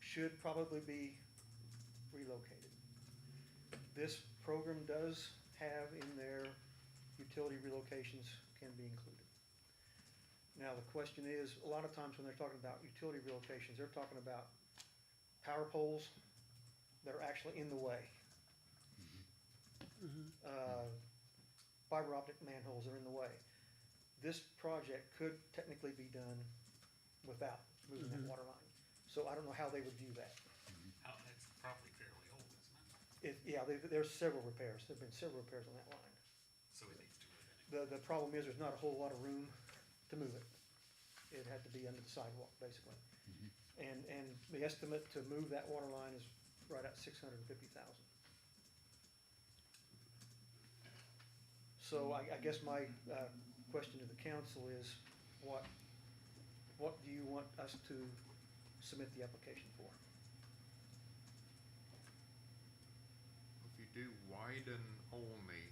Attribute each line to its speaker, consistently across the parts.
Speaker 1: should probably be relocated. This program does have in there, utility relocations can be included. Now, the question is, a lot of times when they're talking about utility relocations, they're talking about power poles that are actually in the way.
Speaker 2: Mm-hmm.
Speaker 1: Uh, Fiber optic manholes that are in the way. This project could technically be done without moving that water line. So I don't know how they would view that.
Speaker 3: Out, that's probably fairly old, isn't it?
Speaker 1: It, yeah, there, there's several repairs, there've been several repairs on that line.
Speaker 3: So it needs to be
Speaker 1: The, the problem is, there's not a whole lot of room to move it. It had to be under the sidewalk, basically. And, and the estimate to move that water line is right at six hundred and fifty thousand. So I, I guess my, uh, question to the council is, what, what do you want us to submit the application for?
Speaker 4: If you do widen only,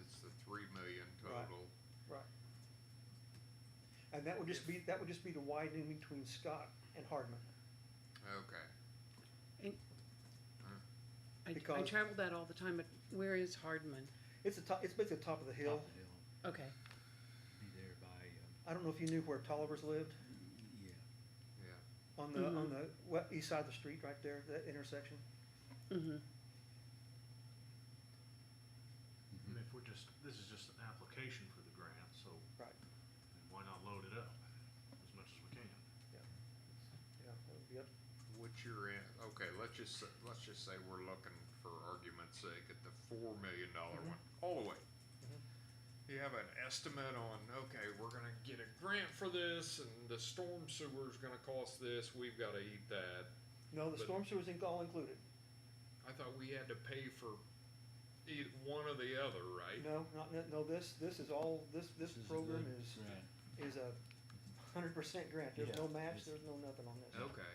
Speaker 4: it's the three million
Speaker 1: Right.
Speaker 4: total.
Speaker 1: Right. And that would just be, that would just be the widening between Scott and Hardman.
Speaker 4: Okay.
Speaker 2: And I, I
Speaker 1: Because-
Speaker 2: travel that all the time, but where is Hardman?
Speaker 1: It's the top, it's basically the top of the hill.
Speaker 5: Top of the hill,
Speaker 2: Okay,
Speaker 5: be there by,
Speaker 3: uh,
Speaker 5: um,
Speaker 1: I don't know if you knew where Tolliver's lived,
Speaker 5: yeah,
Speaker 4: Yeah.
Speaker 1: on the, on the we- east side of the street right there, that intersection.
Speaker 2: mm-hmm,
Speaker 6: And if we're just, this is just an application for the grant, so
Speaker 1: Right.
Speaker 6: then why not load it up as much as we can?
Speaker 1: Yeah. Yeah, that would be up.
Speaker 4: What you're in, okay, let's just, say- let's just say we're looking for argument's sake at the four million dollar one, all the way. You have an estimate on, okay, we're gonna get a grant for this and the storm sewer's gonna cost this, we've gotta eat that.
Speaker 1: No, the
Speaker 4: But-
Speaker 1: storm sewer's in- all included.
Speaker 4: I thought we had to pay for either one or the other, right?
Speaker 1: No, not, no- no, this, this is all, this, this
Speaker 5: This is
Speaker 1: program
Speaker 5: the
Speaker 1: is,
Speaker 5: grant.
Speaker 1: is a hundred percent grant. There's
Speaker 5: Yeah.
Speaker 1: no match, there's no nothing on this.
Speaker 4: Okay.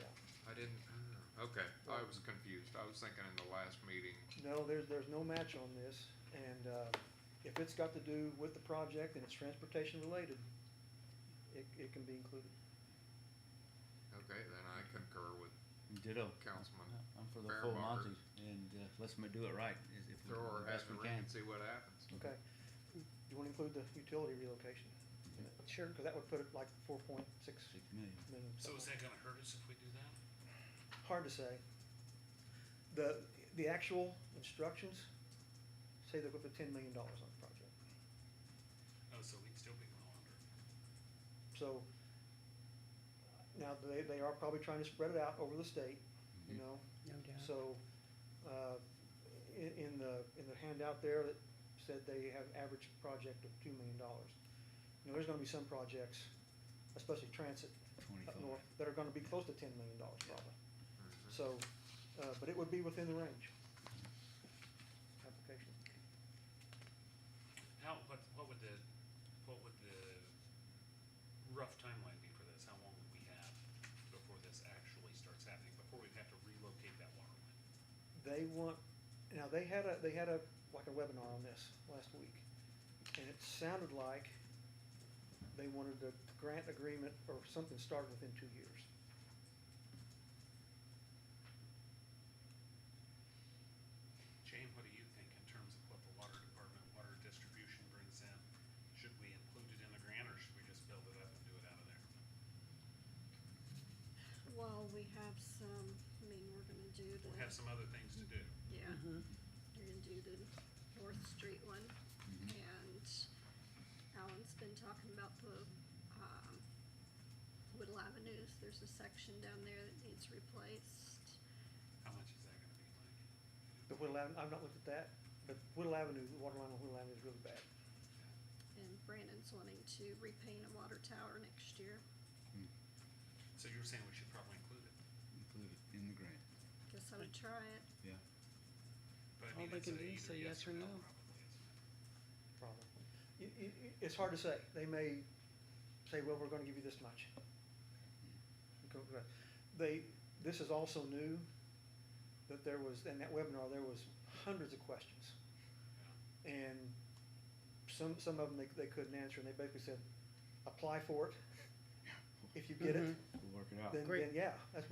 Speaker 1: Yeah.
Speaker 4: I didn't. ah, Okay, I was confused. I was thinking in the last meeting.
Speaker 1: No, there's, there's no match on this, and, uh, if it's got to do with the project and it's transportation related, it, it can be included.
Speaker 4: Okay, then I concur with
Speaker 5: Ditto.
Speaker 4: Councilman.
Speaker 5: I'm for the full
Speaker 4: Fairbarger.
Speaker 5: Monty, and, uh, let's ma- do it right, is if we,
Speaker 4: Throw our
Speaker 5: the
Speaker 4: hat
Speaker 5: best
Speaker 4: in the
Speaker 5: we
Speaker 4: ring
Speaker 5: can.
Speaker 4: and see what happens.
Speaker 1: Okay, you wanna include the utility relocation? Sure. Cause that would put it like four point six
Speaker 5: Six million.
Speaker 1: million.
Speaker 3: doing. So is that gonna hurt us if we do that?
Speaker 1: Hard to say. The, the actual instructions say they're gonna put ten million dollars on the project.
Speaker 3: Oh, so we'd still be well under.
Speaker 1: So, now, they, they are probably trying to spread it out over the state, you know,
Speaker 2: no doubt.
Speaker 1: So, uh, i- in the, in the handout there that said they have average project of two million dollars. You know, there's gonna be some projects, especially transit up
Speaker 5: 25.
Speaker 1: north, that are gonna be close to ten million dollars probably. So, uh, but it would be within the range. Application.
Speaker 3: How, what, what would the, what would the rough timeline be for this? How long would we have before this actually starts happening, before we'd have to relocate that water line?
Speaker 1: They want, now, they had a, they had a, like a webinar on this last week. And it sounded like they wanted a grant agreement or something started within two years.
Speaker 3: Jane, what do you think in terms of what the water department, water distribution brings in? Should we include it in the grant, or should we just build it up and do it out of there?
Speaker 7: Well, we have some, I mean, we're gonna do the,
Speaker 3: We have some other things to do.
Speaker 7: yeah,
Speaker 2: Uh-huh.
Speaker 7: we're gonna do the North Street one.
Speaker 3: Mm-hmm.
Speaker 5: mm-hmm,
Speaker 7: And Alan's been talking about the, um, Whittle Avenues, there's a section down there that needs replaced.
Speaker 3: How much is that gonna be like?
Speaker 1: The Whittle Avenue, I've not looked at that, but Whittle Avenue, the water line on Whittle Avenue is really bad.
Speaker 7: And Brandon's wanting to repaint a water tower next year,
Speaker 3: So you're saying we should probably include it?
Speaker 5: Include it in the grant,
Speaker 7: guess I would try it.
Speaker 5: yeah.
Speaker 3: But I
Speaker 2: All
Speaker 3: mean,
Speaker 2: they
Speaker 3: it's
Speaker 2: can
Speaker 3: a
Speaker 2: do is
Speaker 3: either
Speaker 2: say yes or no.
Speaker 3: probably, isn't it?
Speaker 1: Problem. It, it, it's hard to say. They may say, well, we're gonna give you this much. Go- go- They, this is also new, that there was, in that webinar, there was hundreds of questions. And some, some of them they, they couldn't answer, and they basically said, apply for it. if you get it,
Speaker 5: We'll work it out.
Speaker 1: then,
Speaker 2: Great.
Speaker 5: Mm-hmm.
Speaker 1: then yeah, that's